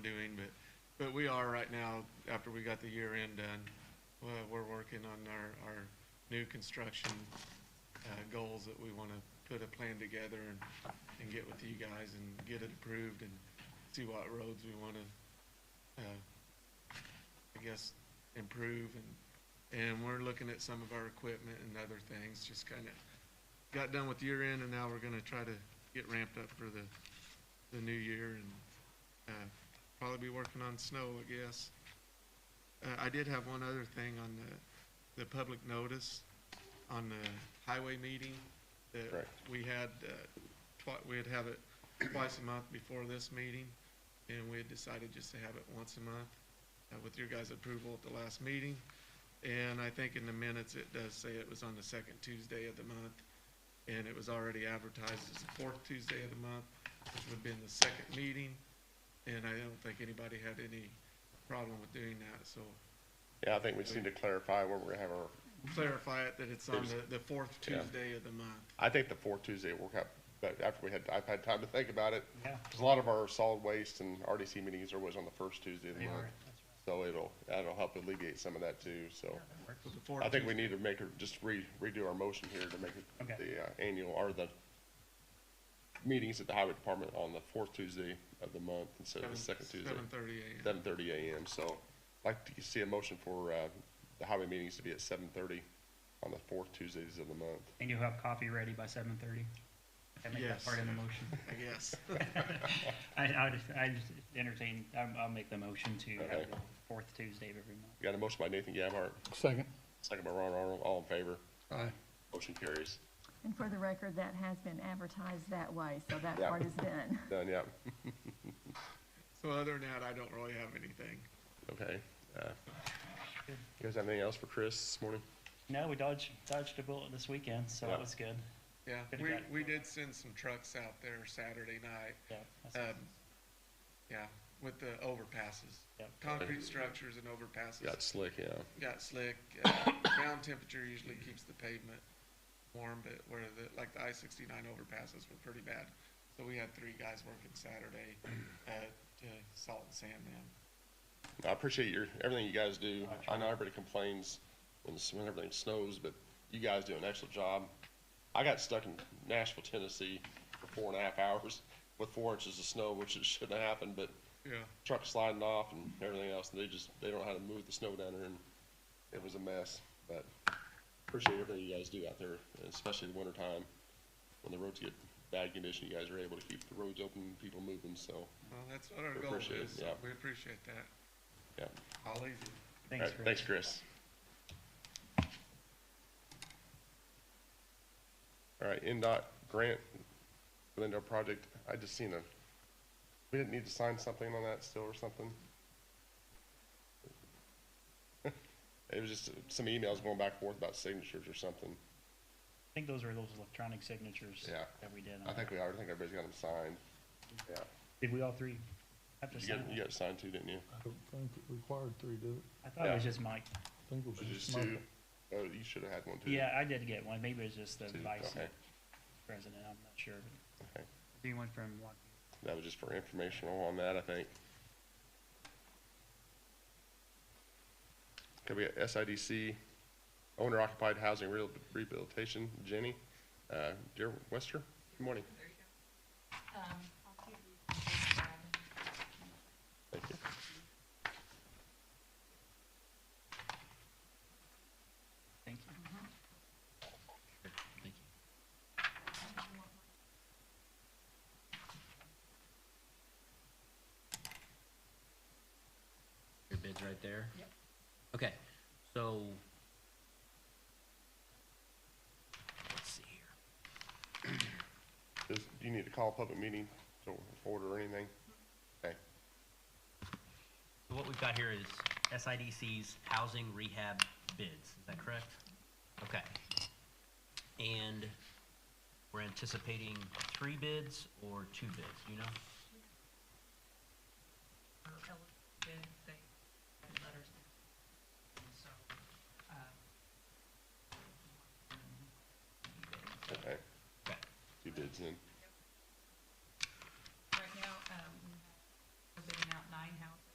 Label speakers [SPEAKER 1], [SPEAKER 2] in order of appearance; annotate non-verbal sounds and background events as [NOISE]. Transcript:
[SPEAKER 1] doing, but, but we are right now, after we got the year end done, well, we're working on our, our new construction, uh, goals that we wanna put a plan together and, and get with you guys and get it approved and see what roads we wanna, uh, I guess, improve and, and we're looking at some of our equipment and other things, just kinda got done with year end and now we're gonna try to get ramped up for the, the new year and, uh, probably be working on snow, I guess. Uh, I did have one other thing on the, the public notice on the highway meeting that
[SPEAKER 2] Correct.
[SPEAKER 1] we had, uh, twi- we'd have it twice a month before this meeting. And we had decided just to have it once a month, uh, with your guys' approval at the last meeting. And I think in the minutes, it does say it was on the second Tuesday of the month. And it was already advertised as the fourth Tuesday of the month, which would have been the second meeting. And I don't think anybody had any problem with doing that, so
[SPEAKER 2] Yeah, I think we just need to clarify where we're gonna have our,
[SPEAKER 1] clarify it that it's on the, the fourth
[SPEAKER 2] Yeah.
[SPEAKER 1] Tuesday of the month.
[SPEAKER 2] I think the fourth Tuesday will work out, but after we had, I've had time to think about it.
[SPEAKER 3] Yeah.
[SPEAKER 2] 'Cause a lot of our solid waste and RDC meetings are always on the first Tuesday of the
[SPEAKER 3] They
[SPEAKER 2] month.
[SPEAKER 3] are, that's
[SPEAKER 2] So it'll, that'll help alleviate some of that too, so.
[SPEAKER 3] right.
[SPEAKER 1] So the fourth
[SPEAKER 2] I think we
[SPEAKER 1] Tuesday-
[SPEAKER 2] need to make, her- just re, redo our motion here to make
[SPEAKER 3] Okay.
[SPEAKER 2] it the uh, annual, or the meetings at the highway department on the fourth Tuesday of the month instead of the second Tuesday,
[SPEAKER 1] Seven thirty AM.
[SPEAKER 2] seven thirty AM. So I'd like to see a motion for, uh, the highway meetings to be at seven thirty on the fourth Tuesdays of the month.
[SPEAKER 3] And you'll have coffee ready by seven thirty? That make
[SPEAKER 1] Yes.
[SPEAKER 3] that part of
[SPEAKER 2] [LAUGHS]
[SPEAKER 3] the motion?
[SPEAKER 1] I guess.
[SPEAKER 3] I, I would, I just entertain, I'm, I'll make the motion to have
[SPEAKER 2] Okay.
[SPEAKER 3] the fourth Tuesday of every month.
[SPEAKER 2] Got a motion by Nathan Gabhart,
[SPEAKER 4] Second.
[SPEAKER 2] second by Ron Aron, all in favor.
[SPEAKER 4] Aye.
[SPEAKER 2] Motion carries.
[SPEAKER 5] And for the record, that has been advertised that way, so that
[SPEAKER 2] Yeah.
[SPEAKER 5] part is done.
[SPEAKER 2] Done, yeah.
[SPEAKER 1] So other than that, I don't really have anything.
[SPEAKER 2] Okay. uh, You guys have anything else for Chris this morning?
[SPEAKER 3] No, we dodged, dodged a bullet this weekend, so
[SPEAKER 2] Yeah.
[SPEAKER 3] that was good.
[SPEAKER 1] Yeah,
[SPEAKER 3] Could've
[SPEAKER 1] we,
[SPEAKER 3] got-
[SPEAKER 1] we did send some trucks out there Saturday night,
[SPEAKER 3] Yeah. that's-
[SPEAKER 1] um, yeah, with the overpasses.
[SPEAKER 3] yeah.
[SPEAKER 1] Concrete structures and overpasses.
[SPEAKER 2] Got slick, yeah.
[SPEAKER 1] got slick. Uh, ground temperature usually keeps the pavement warm, but where the, like the I sixty-nine overpasses were pretty bad. So we had three guys working Saturday, uh, to salt and sand them.
[SPEAKER 2] I appreciate your, everything you guys do. I know everybody complains when, s- when everything snows, but you guys do an excellent job. I got stuck in Nashville, Tennessee for four and a half hours with four inches of snow, which it shouldn't have happened, but
[SPEAKER 1] Yeah.
[SPEAKER 2] truck sliding off and everything else, and they just, they don't know how to move the snow down there, and it was a mess, but appreciate everything you guys do out there, and especially in the winter time, when the roads get bad condition, you guys are able to keep the roads open, and people moving, so,
[SPEAKER 1] Well, that's what our
[SPEAKER 2] We
[SPEAKER 1] goal
[SPEAKER 2] appreciate it,
[SPEAKER 1] is. so
[SPEAKER 2] yeah.
[SPEAKER 1] We appreciate that.
[SPEAKER 2] yeah.
[SPEAKER 1] I'll leave you.
[SPEAKER 3] Thanks,
[SPEAKER 2] All right,
[SPEAKER 3] Chris.
[SPEAKER 2] uh, Thanks, Chris. All right, NDOT grant, Glendale project, I just seen a, we didn't need to sign something on that still or something? [LAUGHS] It was just some emails going back and forth about signatures or something.
[SPEAKER 3] I think those are those electronic signatures.
[SPEAKER 2] Yeah.
[SPEAKER 3] That we did. on
[SPEAKER 2] I
[SPEAKER 3] it.
[SPEAKER 2] think we are, I think everybody's got them signed. Yeah.
[SPEAKER 3] Did we all three have to
[SPEAKER 2] You got, you
[SPEAKER 3] sign?
[SPEAKER 2] got it signed too, didn't you?
[SPEAKER 4] I don't think it required three, did it?
[SPEAKER 3] I thought it was
[SPEAKER 2] Yeah.
[SPEAKER 3] just Mike.
[SPEAKER 4] I think it
[SPEAKER 2] Was
[SPEAKER 4] was
[SPEAKER 2] it
[SPEAKER 4] just
[SPEAKER 2] just
[SPEAKER 4] Mike.
[SPEAKER 2] two? Oh, you should have had one too.
[SPEAKER 3] Yeah, I did get one. Maybe it was just the
[SPEAKER 2] Two,
[SPEAKER 3] vice
[SPEAKER 2] okay.
[SPEAKER 3] president. I'm not sure. but-
[SPEAKER 2] Okay.
[SPEAKER 3] Anyone from Lockheed?
[SPEAKER 2] That was just for informational on that, I think. Okay, we got SIDC, owner occupied housing real- rehabilitation, Jenny, uh, dear Wester, good morning.
[SPEAKER 6] Um, I'll give you this one.
[SPEAKER 2] Thank you.
[SPEAKER 3] Thank you.
[SPEAKER 7] Your bid's right there? Yep. Okay, so. Let's see here.
[SPEAKER 2] Does, do you need to call a public meeting to order or anything?
[SPEAKER 6] Mm-hmm.
[SPEAKER 2] Okay,
[SPEAKER 7] So what we've got here is SIDC's housing rehab bids, is that correct? Okay. And we're anticipating three bids or two bids, do you know?
[SPEAKER 8] are eligible, then they get letters. And so, um,
[SPEAKER 2] okay,
[SPEAKER 7] Okay.
[SPEAKER 2] two bids in.